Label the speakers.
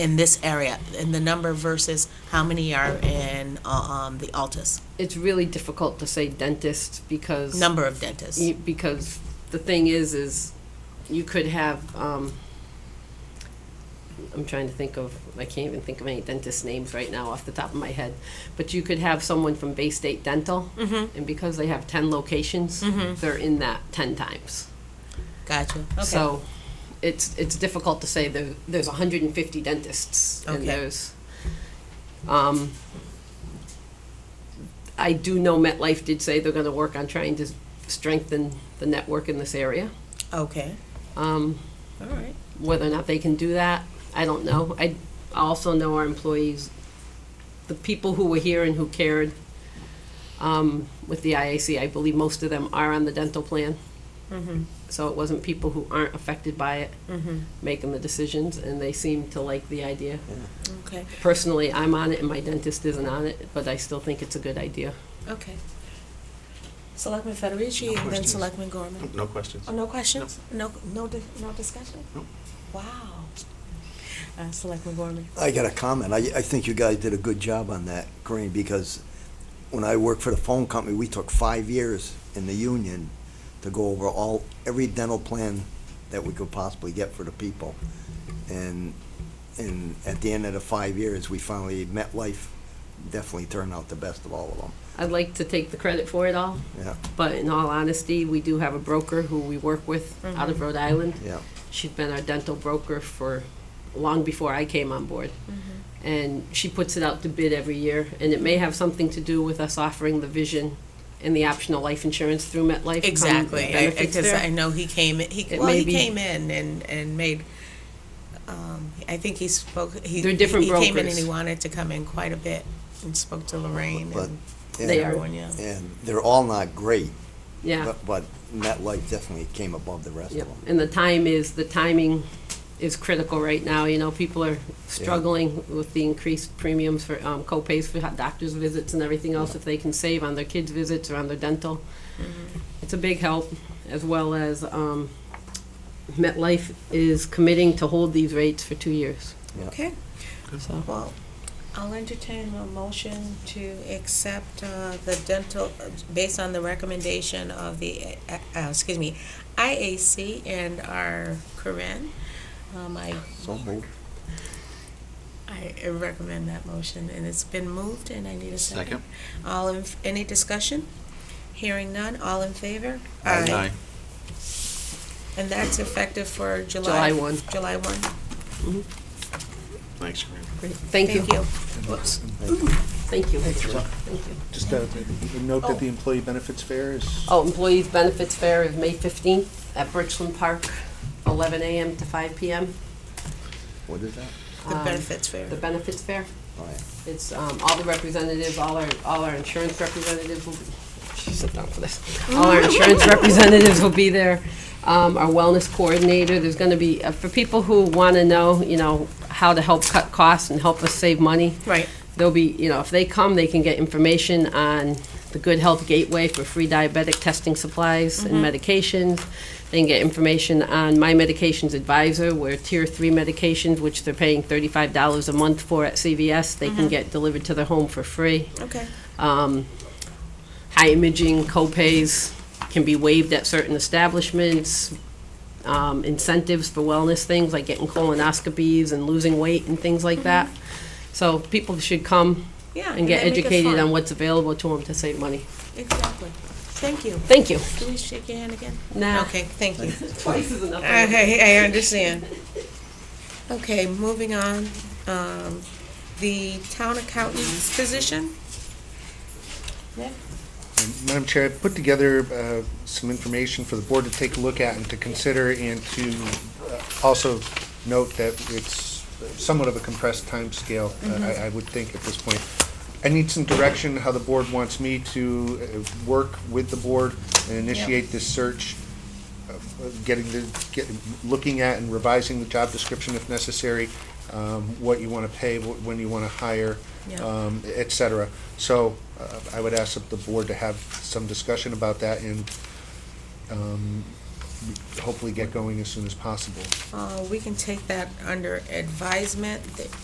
Speaker 1: in this area, in the number versus how many are in, uh, um, the Altus?
Speaker 2: It's really difficult to say dentist because.
Speaker 1: Number of dentists.
Speaker 2: Y- Because the thing is, is you could have, um, I'm trying to think of, I can't even think of any dentist names right now off the top of my head. But you could have someone from Bay State Dental,
Speaker 1: Mm-hmm.
Speaker 2: and because they have ten locations, they're in that ten times.
Speaker 1: Gotcha. Okay.
Speaker 2: So it's, it's difficult to say there, there's hundred and fifty dentists
Speaker 1: Okay.
Speaker 2: and there's, um, I do know MetLife did say they're gonna work on trying to strengthen the network in this area.
Speaker 1: Okay,
Speaker 2: Um,
Speaker 1: all right.
Speaker 2: whether or not they can do that, I don't know. I also know our employees, the people who were here and who cared, um, with the IAC, I believe most of them are on the dental plan.
Speaker 1: Mm-hmm.
Speaker 2: So it wasn't people who aren't affected by it making the decisions, and they seem to like the idea.
Speaker 1: Okay,
Speaker 2: Personally, I'm on it, and my dentist isn't on it, but I still think it's a good idea.
Speaker 1: okay. Selectman Federici and then
Speaker 3: questions.
Speaker 1: Selectman Gorman.
Speaker 3: No questions.
Speaker 1: Oh, no questions? No, no, di- no discussion?
Speaker 3: No.
Speaker 1: Wow. Uh, Selectman Gorman.
Speaker 4: I got a comment. I, I think you guys did a good job on that, Corinne, because when I worked for the phone company, we took five years in the union to go over all, every dental plan that we could possibly get for the people. And, and at the end of the five years, we finally, MetLife definitely turned out the best of all of them,
Speaker 2: I'd like to take the credit for it all,
Speaker 4: yeah,
Speaker 2: but in all honesty, we do have a broker who we work with out
Speaker 1: Mm-hmm.
Speaker 2: of Rhode Island.
Speaker 4: yeah.
Speaker 2: She's been our dental broker for long before I came on board.
Speaker 1: Mm-hmm.
Speaker 2: And she puts it out to bid every year, and it may have something to do with us offering the vision and the optional life insurance through MetLife.
Speaker 1: Exactly,
Speaker 2: common
Speaker 1: I- I-
Speaker 2: benefits
Speaker 1: cause
Speaker 2: there.
Speaker 1: I know he came, in- he,
Speaker 2: It
Speaker 1: well,
Speaker 2: may
Speaker 1: he
Speaker 2: be-
Speaker 1: came in and, and made, um, I think he spoke, he.
Speaker 2: They're different
Speaker 1: He came in and
Speaker 2: brokers.
Speaker 1: he wanted to come in quite a bit and spoke to Lorraine
Speaker 4: But-
Speaker 1: and
Speaker 4: And-
Speaker 2: They are.
Speaker 1: everyone, yeah.
Speaker 4: And they're all not great,
Speaker 2: Yeah,
Speaker 4: but, but MetLife definitely came above the rest of
Speaker 2: yep.
Speaker 4: them.
Speaker 2: And the time is, the timing is critical right now, you know, people are struggling with the increased premiums for, um, co-pays for ho- doctor's visits and everything else, if they can save on their kids' visits or on their dental. It's a big help, as well as, um, MetLife is committing to hold these rates for two years,
Speaker 1: Okay,
Speaker 2: so.
Speaker 1: well, I'll entertain a motion to accept, uh, the dental, based on the recommendation of the, uh, uh, excuse me, IAC and our Corinne. Um, I
Speaker 4: So moved.
Speaker 1: I I recommend that motion, and it's been moved, and I need a second.
Speaker 3: Second.
Speaker 1: All in, any discussion? Hearing none, all in favor? And that's effective for July?
Speaker 2: July 1.
Speaker 1: July one.
Speaker 3: Thanks, Corinne.
Speaker 2: Great. Thank you,
Speaker 1: Thank you.
Speaker 2: thank you.
Speaker 5: Just a a note that the employee benefits fair is,
Speaker 2: Oh, Employees Benefits Fair is May fifteenth at Birchland Park, eleven AM to five PM.
Speaker 4: What is that?
Speaker 1: The
Speaker 2: Um,
Speaker 1: benefits fair.
Speaker 2: The benefits fair.
Speaker 4: All right.
Speaker 2: It's um, all the representatives, all our, all our insurance representatives will be, Jeez, sit down for this. All our insurance representatives will be there, um, our wellness coordinator, there's gonna be, uh, for people who wanna know, you know, how to help cut costs and help us save money,
Speaker 1: Right.
Speaker 2: there'll be, you know, if they come, they can get information on the Good Health Gateway for free diabetic testing supplies and medications. They can get information on My Medications Advisor, where tier three medications, which they're paying thirty-five dollars a month for at CVS, they can get delivered to their home for free.
Speaker 1: Okay.
Speaker 2: Um, high imaging copays can be waived at certain establishments. Um, incentives for wellness things like getting colonoscopies and losing weight and things like that. So people should come
Speaker 1: Yeah.
Speaker 2: and get
Speaker 1: then make it
Speaker 2: educated
Speaker 1: fun.
Speaker 2: on what's available to them to save money.
Speaker 1: Exactly. Thank you.
Speaker 2: Thank you.
Speaker 1: Can we shake your hand again?
Speaker 2: Nah.
Speaker 1: Okay, thank you.
Speaker 2: Twice is enough.
Speaker 1: Okay, I understand. Okay, moving on, um, the town accountant's position?
Speaker 5: um, Madam Chair, I put together uh, some information for the board to take a look at and to consider and to uh, also note that it's somewhat of a compressed timescale, uh, I I would think at this point. I need some direction how the board wants me to uh, work with the board and initiate this search, uh, getting the, get- looking at and revising the job description if necessary, um, what you want to pay, wh- when you want to hire,
Speaker 1: Yeah.
Speaker 5: um, et cetera. So uh, I would ask the board to have some discussion about that and um, hopefully get going as soon as possible.
Speaker 1: Uh, we can take that under advisement. Th-